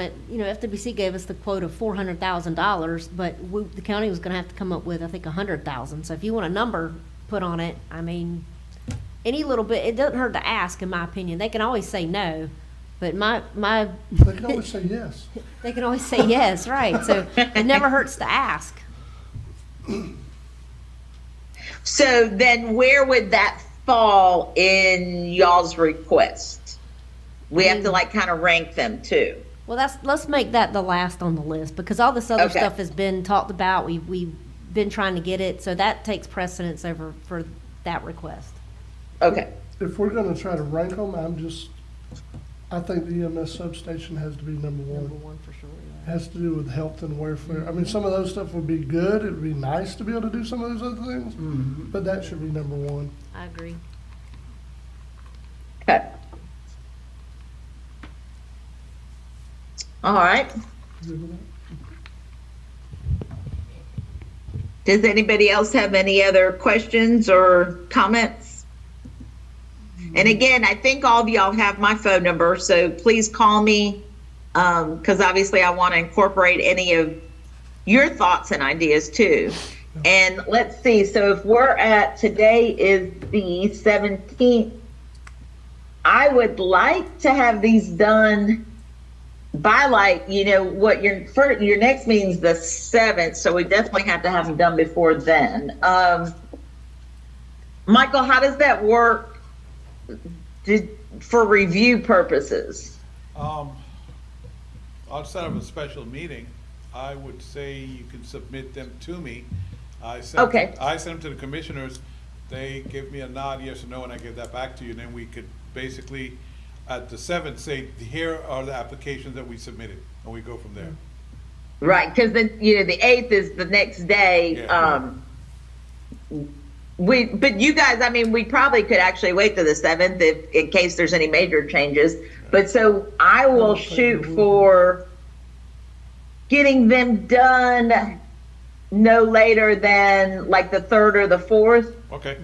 But, you know, FWC gave us the quote of four hundred thousand dollars, but we, the county was gonna have to come up with, I think, a hundred thousand. So if you want a number put on it, I mean, any little bit, it doesn't hurt to ask, in my opinion. They can always say no, but my, my, They can always say yes. they can always say yes, right? So it never hurts to ask. So then where would that fall in y'all's request? We have to like kind of rank them too. Well, that's, let's make that the last on the list, because all this other Okay. stuff has been talked about, we, we've been trying to get it, so that takes precedence over for that request. Okay. If we're gonna try to rank them, I'm just, I think the EMS substation has to be number Number one. one for sure, yeah. Has to do with health and welfare. I mean, some of those stuff would be good. It'd be nice to be able to do some of those other things, but that should be number one. I agree. Okay. All right. Does anybody else have any other questions or comments? And again, I think all of y'all have my phone number, so please call me. Um, cause obviously I want to incorporate any of your thoughts and ideas too. And let's see, so if we're at, today is the seventeenth. I would like to have these done by like you know what your first, your next meeting's the seventh, so we definitely have to have them done before then. Um, Michael, how does that work? Did for review purposes? Um, outside of a special meeting, I would say you can submit them to me. I send, Okay. I send them to the commissioners, they give me a nod, yes or no, and I give that back to you, and then we could basically, at the seventh, say, here are the applications that we submitted, and we go from there. Right, because then you know the eighth is the next day. Yeah. Um, we, but you guys, I mean, we probably could actually wait till the seventh if, in case there's any major changes. But so I will think shoot we will. for getting them done no later than like the third or the fourth, Okay,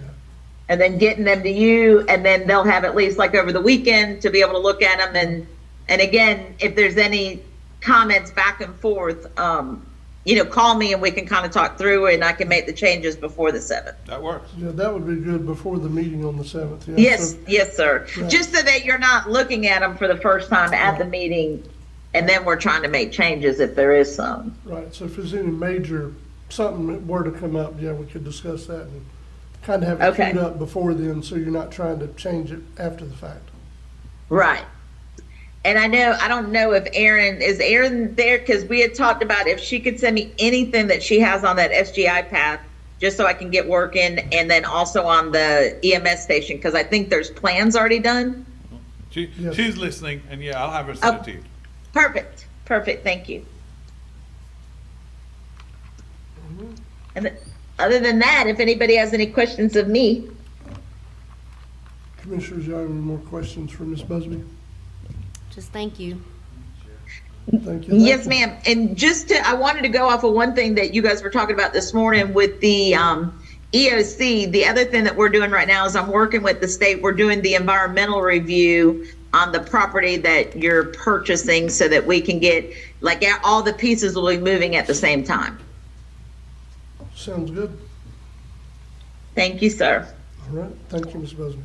and then getting them to you, and then they'll have at least like over the weekend to be able to look at them. And and again, if there's any comments back and forth, um, you know, call me and we can kind of talk through it, and I can make the changes before the seventh. that works. Yeah, that would be good before the meeting on the seventh. Yes, yes, sir. Just so that you're not looking at them for the first time at the meeting, and then we're trying to make changes if there is some. Right, so if there's any major, something that were to come up, yeah, we could discuss that and kind of have Okay. it queued up before then, so you're not trying to change it after the fact. Right. And I know, I don't know if Erin, is Erin there? Because we had talked about if she could send me anything that she has on that SGI path, just so I can get working, and then also on the EMS station, because I think there's plans already done. She, Yes. she's listening, and yeah, I'll have her send it to you. Perfect, perfect, thank you. And th- other than that, if anybody has any questions of me, Commissioners, y'all have any more questions for Ms. Busby? Just thank you. Thank you. yes, Thank you. ma'am. And just to, I wanted to go off of one thing that you guys were talking about this morning with the um, EOC. The other thing that we're doing right now is I'm working with the state. We're doing the environmental review on the property that you're purchasing so that we can get, like, all the pieces will be moving at the same time. Sounds good. Thank you, sir. All right, thank you, Ms. Busby.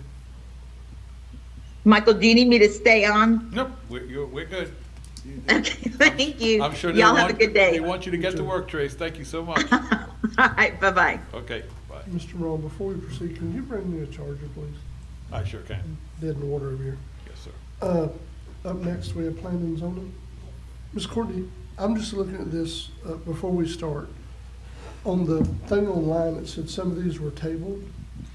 Michael, do you need me to stay on? Nope, we're, you're, we're good. Okay, thank you. I'm sure they Y'all want. have a good They day. All want you to get to work, Trace, thank you so much. right, bye-bye. Okay, bye, Mr. Ron, before we proceed, can you bring me a charger, please? I sure can, Dead in water over here. yes, sir. Uh, Up next, we have planning and zoning. Ms. Courtney, I'm just looking at this uh, before we start. On the thing online, it said some of these were tabled.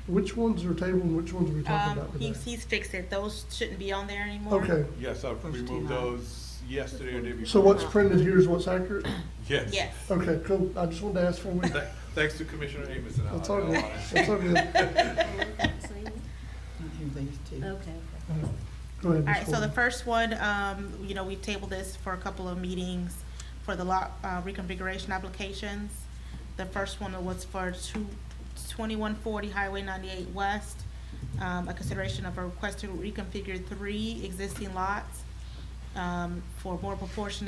Which ones are tabled and which ones are we talking Um, about today? he's, he's fixed it. Those shouldn't be on there anymore. Okay, Yes, I've removed those yesterday or day before. so what's printed here is what's accurate? Yes. Yes. Okay, cool. I just wanted to ask for a week. Th- Thanks to Commissioner Amos and I. That's all good. That's all good. Okay. Go ahead, All Ms. right, so the Courtney. first one, um, you know, we tabled this for a couple of meetings for the lot, uh, reconfiguration applications. The first one was for two, twenty-one forty Highway ninety-eight West, um, a consideration of a request to reconfigure three existing lots, um, for more proportionate